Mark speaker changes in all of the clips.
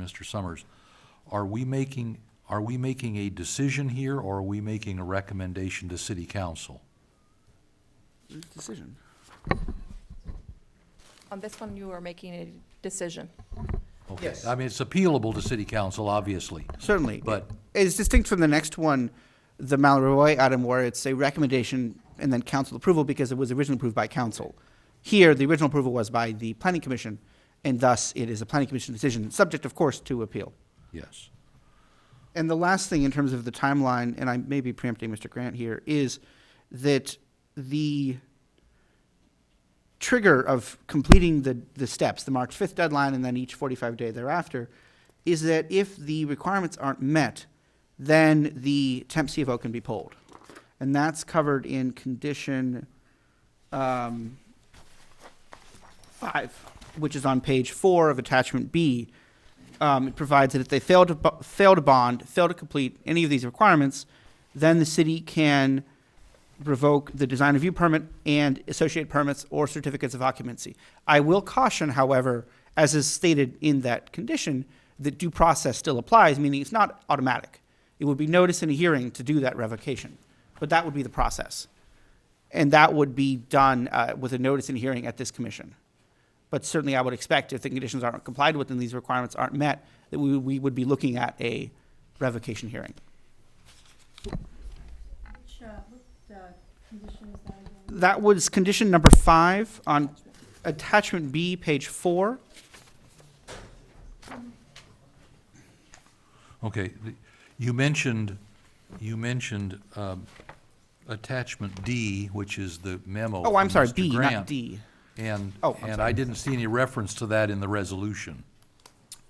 Speaker 1: Mr. Summers, are we making, are we making a decision here, or are we making a recommendation to city council?
Speaker 2: Decision.
Speaker 3: On this one, you are making a decision.
Speaker 1: Okay.
Speaker 2: Yes.
Speaker 1: I mean, it's appealable to city council, obviously.
Speaker 2: Certainly.
Speaker 1: But-
Speaker 2: It's distinct from the next one, the Malroy item where it's a recommendation and then council approval because it was originally approved by council. Here, the original approval was by the planning commission, and thus it is a planning commission decision, subject, of course, to appeal.
Speaker 1: Yes.
Speaker 2: And the last thing in terms of the timeline, and I may be preempting Mr. Grant here, is that the trigger of completing the, the steps, the March 5th deadline and then each 45 day thereafter, is that if the requirements aren't met, then the temp CFO can be polled. And that's covered in condition um, five, which is on page four of attachment B. Um, it provides that if they fail to, bo- fail to bond, fail to complete any of these requirements, then the city can revoke the design review permit and associate permits or certificates of occupancy. I will caution, however, as is stated in that condition, that due process still applies, meaning it's not automatic. It would be notice and a hearing to do that revocation, but that would be the process. And that would be done uh, with a notice and hearing at this commission. But certainly, I would expect if the conditions aren't complied with and these requirements aren't met, that we, we would be looking at a revocation hearing.
Speaker 4: Which, uh, what, uh, condition is that again?
Speaker 2: That was condition number five on attachment B, page four.
Speaker 1: Okay, the- you mentioned, you mentioned um, attachment D, which is the memo.
Speaker 2: Oh, I'm
Speaker 1: from
Speaker 2: sorry,
Speaker 1: Mr.
Speaker 2: B,
Speaker 1: Grant,
Speaker 2: not D.
Speaker 1: And,
Speaker 2: Oh, I'm
Speaker 1: and
Speaker 2: sorry.
Speaker 1: I didn't see any reference to that in the resolution.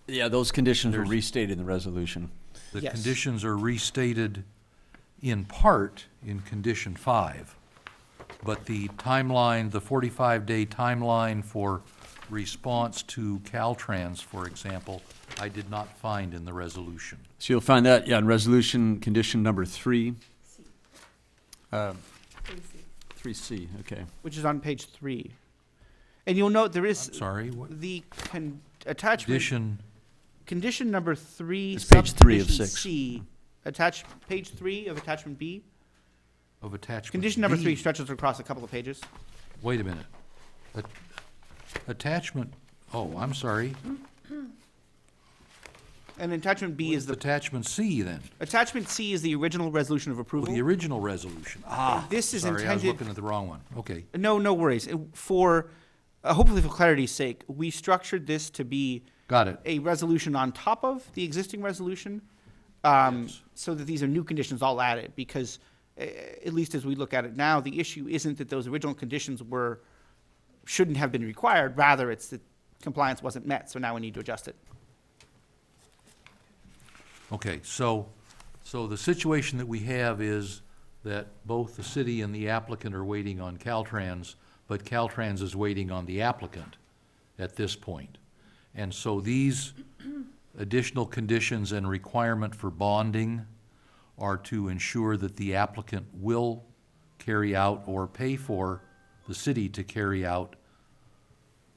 Speaker 5: Yeah, those conditions were restated in the resolution.
Speaker 1: The
Speaker 2: Yes.
Speaker 1: conditions are restated in part in condition five, but the timeline, the forty-five day timeline for response to Caltrans, for example, I did not find in the resolution.
Speaker 5: So you'll find that, yeah, in resolution condition number three. Uh, Three C, okay.
Speaker 2: Which is on page three. And you'll note there is.
Speaker 1: I'm sorry, what-
Speaker 2: The con- attachment,
Speaker 1: Condition,
Speaker 2: condition number three.
Speaker 5: It's page three of
Speaker 2: subdivision
Speaker 5: six.
Speaker 2: C, attach, page three of attachment B.
Speaker 1: of attachment.
Speaker 2: Condition number
Speaker 1: D.
Speaker 2: three stretches across a couple of pages.
Speaker 1: Wait a minute. At- Attachment, oh, I'm sorry.
Speaker 2: And attachment B is the,
Speaker 1: Attachment C then,
Speaker 2: attachment C is the original resolution of approval.
Speaker 1: the original resolution. Ah,
Speaker 2: And This is
Speaker 1: sorry, I was
Speaker 2: intended.
Speaker 1: looking at the wrong one. Okay,
Speaker 2: No, no worries. It- For, uh, hopefully for clarity's sake, we structured this to be
Speaker 1: got it.
Speaker 2: a resolution on top of the existing resolution, um,
Speaker 1: Yes.
Speaker 2: so that these are new conditions all added, because, uh, at least as we look at it now, the issue isn't that those original conditions were, shouldn't have been required, rather it's that compliance wasn't met, so now we need to adjust it.
Speaker 1: Okay, so, so the situation that we have is that both the city and the applicant are waiting on Caltrans, but Caltrans is waiting on the applicant at this point. And so these additional conditions and requirement for bonding are to ensure that the applicant will carry out or pay for the city to carry out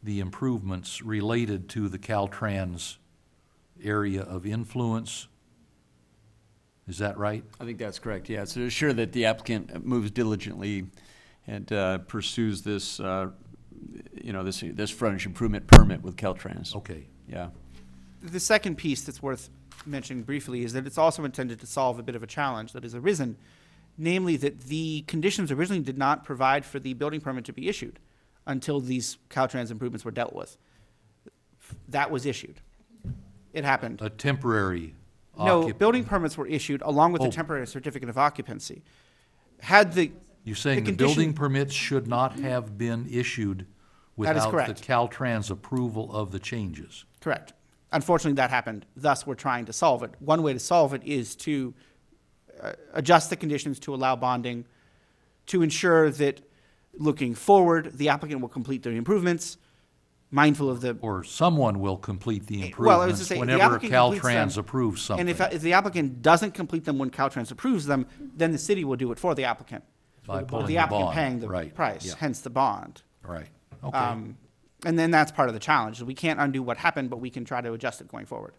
Speaker 1: the improvements related to the Caltrans area of influence. Is that right?
Speaker 5: I think that's correct, yeah. So to ensure that the applicant moves diligently and uh, pursues this, uh, you know, this, this frontage improvement permit with Caltrans.
Speaker 1: Okay,
Speaker 5: Yeah.
Speaker 2: The second piece that's worth mentioning briefly is that it's also intended to solve a bit of a challenge that has arisen, namely that the conditions originally did not provide for the building permit to be issued until these Caltrans improvements were dealt with. That was issued. It happened.
Speaker 1: a temporary
Speaker 2: No,
Speaker 1: occup-
Speaker 2: building permits were issued along with
Speaker 1: Oh.
Speaker 2: the temporary certificate of occupancy. Had the,
Speaker 1: You're saying
Speaker 2: the
Speaker 1: the
Speaker 2: condition-
Speaker 1: building permits should not have been issued
Speaker 2: That is
Speaker 1: without the
Speaker 2: correct.
Speaker 1: Caltrans approval of the changes?
Speaker 2: correct. Unfortunately, that happened. Thus, we're trying to solve it. One way to solve it is to uh, adjust the conditions to allow bonding, to ensure that looking forward, the applicant will complete their improvements, mindful of the.
Speaker 1: Or someone will complete the
Speaker 2: Well, I was to
Speaker 1: improvements
Speaker 2: say, the
Speaker 1: whenever
Speaker 2: applicant completes them,
Speaker 1: Caltrans approves something?
Speaker 2: And if, if the applicant doesn't complete them when Caltrans approves them, then the city will do it for the applicant.
Speaker 1: By
Speaker 2: With
Speaker 1: pulling the
Speaker 2: applicant
Speaker 1: bond,
Speaker 2: paying the
Speaker 1: right,
Speaker 2: price,
Speaker 1: yeah.
Speaker 2: hence the bond.
Speaker 1: Right, okay.
Speaker 2: Uh, Um, and then that's part of the challenge. We can't undo what happened, but we can try to adjust it going forward.